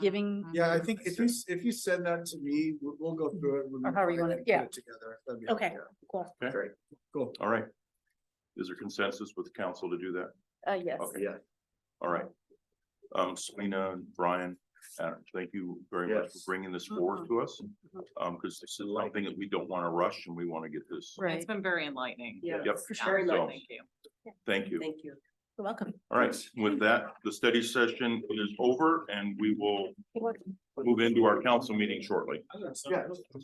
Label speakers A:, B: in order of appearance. A: giving.
B: Yeah, I think if you, s- if you send that to me, we'll, we'll go through it. when we
A: Or however you
B: finalize
A: wanna-
B: and put
A: yeah.
B: it Together. That'd be
A: Okay.
B: helpful.
A: Cool.
C: Okay.
B: Great, cool.
C: All right. Is there consensus with the council to do that?
D: Mm-hmm.
A: Uh, yes.
C: Okay. All right. Um, Selena, and Brian, uh, thank you very much for
B: Yes.
C: bringing this forward to us. Um, because this is something that we don't want to rush and we want to get this.
A: Right.
D: It's been very enlightening.
E: Yeah.
C: Yep.
A: For
C: sure.
D: So, Thank you.
C: Thank you.
E: Thank you.
A: You're welcome.
C: All right. With that, the study session is over and we will
A: You're welcome.
C: move into our council meeting shortly.
B: Yeah.